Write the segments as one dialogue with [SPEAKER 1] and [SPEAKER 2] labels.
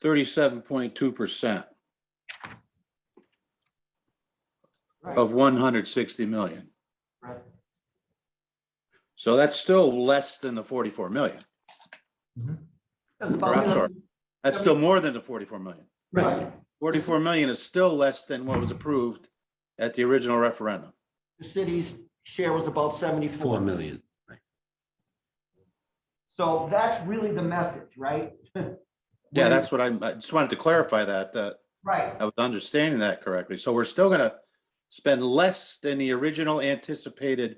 [SPEAKER 1] thirty-seven point two percent
[SPEAKER 2] Right.
[SPEAKER 1] of one hundred sixty million.
[SPEAKER 2] Right.
[SPEAKER 1] So that's still less than the forty-four million.
[SPEAKER 2] That's
[SPEAKER 1] Or,
[SPEAKER 2] about
[SPEAKER 1] I'm sorry, that's still more than the forty-four million.
[SPEAKER 2] Right,
[SPEAKER 1] Forty-four million is still less than what was approved at the original referendum.
[SPEAKER 2] the city's share was about
[SPEAKER 3] Four
[SPEAKER 2] seventy-four.
[SPEAKER 3] million.
[SPEAKER 2] So that's really the message, right?
[SPEAKER 1] Yeah, that's what I'm, I just wanted to clarify that, that
[SPEAKER 2] Right,
[SPEAKER 1] I was understanding that correctly. So we're still gonna spend less than the original anticipated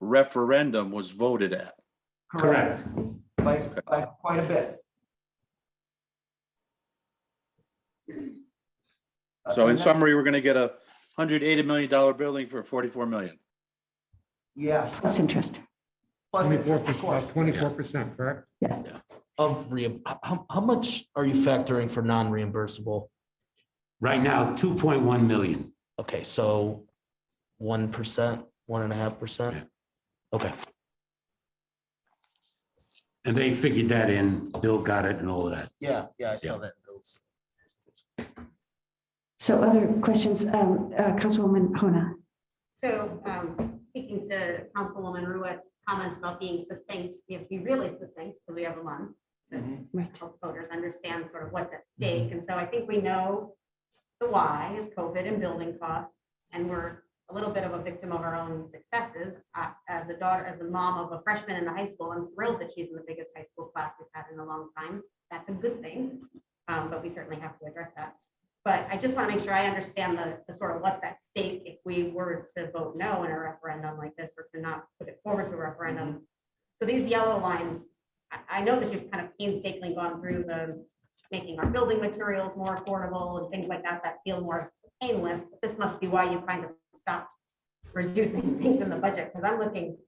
[SPEAKER 1] referendum was voted at.
[SPEAKER 2] correct, by, by quite a bit.
[SPEAKER 1] So in
[SPEAKER 2] And that-
[SPEAKER 1] summary, we're gonna get a hundred eighty million dollar building for forty-four million.
[SPEAKER 2] Yeah.
[SPEAKER 4] Plus interest.
[SPEAKER 2] plus
[SPEAKER 5] Twenty-four
[SPEAKER 2] interest, of course.
[SPEAKER 5] percent, twenty-four percent, correct?
[SPEAKER 6] Of re, how, how much are you factoring for non-reimbursable?
[SPEAKER 3] Right now, two point one million.
[SPEAKER 6] Okay, so one percent, one and a half percent? Okay,
[SPEAKER 3] And they figured that in. Bill got it and all of that.
[SPEAKER 6] yeah, yeah, I saw that. in Bill's.
[SPEAKER 4] So other questions, um, uh, Councilwoman Hona?
[SPEAKER 7] So um, speaking to Councilwoman Ruette's comments about being succinct, we have to be really succinct because we have a month
[SPEAKER 2] Mm-hmm,
[SPEAKER 7] to
[SPEAKER 4] Right.
[SPEAKER 7] help voters understand sort of what's at stake. And so I think we know the why is COVID and building costs. And we're a little bit of a victim of our own successes. Uh, As a daughter, as the mom of a freshman in the high school, I'm thrilled that she's in the biggest high school class we've had in a long time. That's a good thing, um, but we certainly have to address that. But I just want to make sure I understand the, the sort of what's at stake if we were to vote no in a referendum like this or to not put it forward to a referendum. So these yellow lines, I, I know that you've kind of painstakingly gone through the making our building materials more affordable and things like that, that feel more painless. But This must be why you kind of stopped reducing things in the budget, because I'm looking,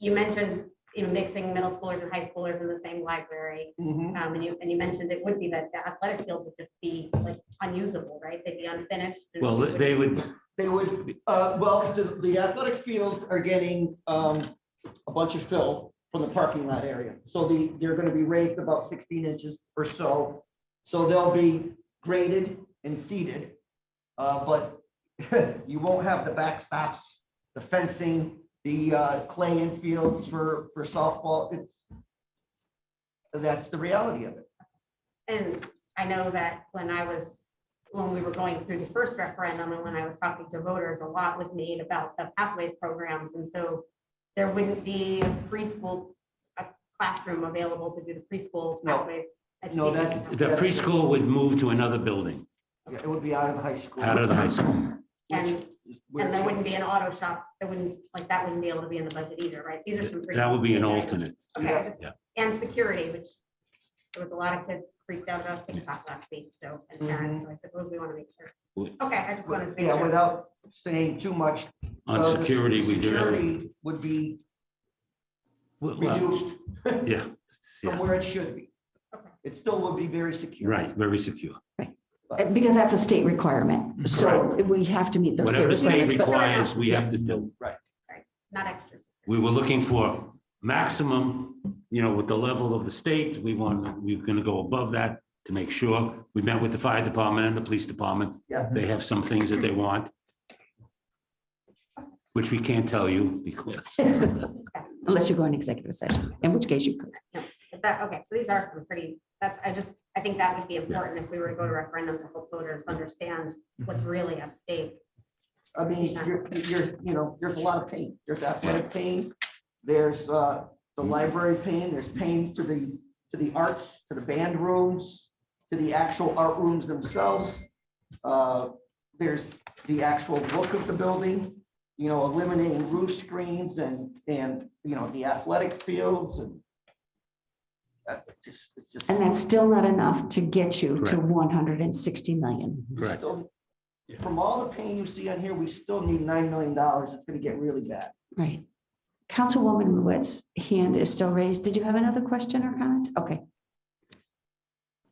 [SPEAKER 7] you mentioned, you know, mixing middle schoolers and high schoolers in the same library.
[SPEAKER 2] Mhm.
[SPEAKER 7] Um, and you, and you mentioned it would be that the athletic field would just be like unusable, right? They'd be unfinished. and
[SPEAKER 3] Well,
[SPEAKER 7] we would-
[SPEAKER 3] they would,
[SPEAKER 2] They would, uh, well, the, the athletic fields are getting, um, a bunch of fill from the parking lot area. So the, they're gonna be raised about sixteen inches or so. So they'll be graded and seeded. Uh, but you won't have the backstops, the fencing, the, uh, clay infields for, for softball. It's, that's the reality of it.
[SPEAKER 7] And I know that when I was, when we were going through the first referendum and when I was talking to voters, a lot was made about the pathways programs. And so there wouldn't be a preschool, a classroom available to do the preschool
[SPEAKER 2] No.
[SPEAKER 7] pathway.
[SPEAKER 2] No, that-
[SPEAKER 7] education.
[SPEAKER 3] the preschool would move to another building
[SPEAKER 2] Yeah, It would be out of the high school.
[SPEAKER 3] out of the high school.
[SPEAKER 7] And,
[SPEAKER 2] Which-
[SPEAKER 7] and there wouldn't be an auto shop, there wouldn't, like, that wouldn't be able to be in the budget either, right? These are some. pretty-
[SPEAKER 3] That would be an alternate.
[SPEAKER 7] Okay, just-
[SPEAKER 3] Yeah.
[SPEAKER 7] and security, which there was a lot of kids freaked out about TikTok last week, so, and parents, so I suppose we want to make sure.
[SPEAKER 3] We-
[SPEAKER 7] Okay, I just wanted to make
[SPEAKER 2] Mm-hmm. Yeah,
[SPEAKER 7] sure.
[SPEAKER 2] without saying too much.
[SPEAKER 3] On
[SPEAKER 2] uh, the
[SPEAKER 3] security, we do. everything.
[SPEAKER 2] Security would be
[SPEAKER 3] Well, well,
[SPEAKER 2] reduced
[SPEAKER 3] Yeah,
[SPEAKER 2] from
[SPEAKER 3] yeah,
[SPEAKER 2] where it should be.
[SPEAKER 7] Okay.
[SPEAKER 2] It still would be very secure.
[SPEAKER 3] right, very secure.
[SPEAKER 4] Uh, Because that's a state requirement, so we have to meet those state
[SPEAKER 3] Mm-hmm. Whatever the state
[SPEAKER 4] requirements. but-
[SPEAKER 3] requires, we have to do.
[SPEAKER 7] Not extras.
[SPEAKER 3] We were looking for maximum, you know, with the level of the state, we want, we're gonna go above that to make sure. We met with the fire department and the police department.
[SPEAKER 2] Yeah.
[SPEAKER 3] They have some things that they want. Which we can't tell you because,
[SPEAKER 4] Unless you go in executive session, in which case you could.
[SPEAKER 7] But that, okay, so these are some pretty, that's, I just, I think that would be important if we were to go to referendum to help voters understand what's really at stake.
[SPEAKER 2] I mean, you're, you're, you know, there's a lot of pain. There's athletic pain. There's, uh, the
[SPEAKER 3] Mm-hmm.
[SPEAKER 2] library pain. There's pain to the, to the arts, to the band rooms, to the actual art rooms themselves. Uh, there's the actual look of the building, you know, eliminating roof screens and, and, you know, the athletic fields and uh, it's just, it's just.
[SPEAKER 4] And that's still not enough to get you to
[SPEAKER 3] Correct. Mm-hmm.
[SPEAKER 4] 160 million.
[SPEAKER 2] We
[SPEAKER 3] Correct.
[SPEAKER 2] still- From all the pain you see on here, we still need nine million dollars. It's gonna get really bad.
[SPEAKER 4] Right. Councilwoman Ruette's hand is still raised. Did you have another question or comment? Okay.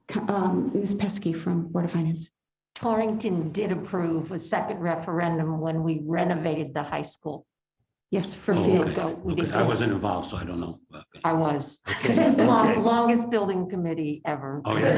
[SPEAKER 4] Co- um, Ms. Pesky from Board of Finance.
[SPEAKER 8] Torrington did approve a second referendum when we renovated the high school.
[SPEAKER 4] Yes, for
[SPEAKER 3] Oh,
[SPEAKER 4] fields.
[SPEAKER 8] So we
[SPEAKER 3] Okay,
[SPEAKER 8] did
[SPEAKER 3] I wasn't
[SPEAKER 8] this.
[SPEAKER 3] involved, so I don't know. Okay.
[SPEAKER 8] I was.
[SPEAKER 3] Okay,
[SPEAKER 8] Long-
[SPEAKER 3] okay.
[SPEAKER 8] Longest building committee ever.
[SPEAKER 3] Oh, yeah.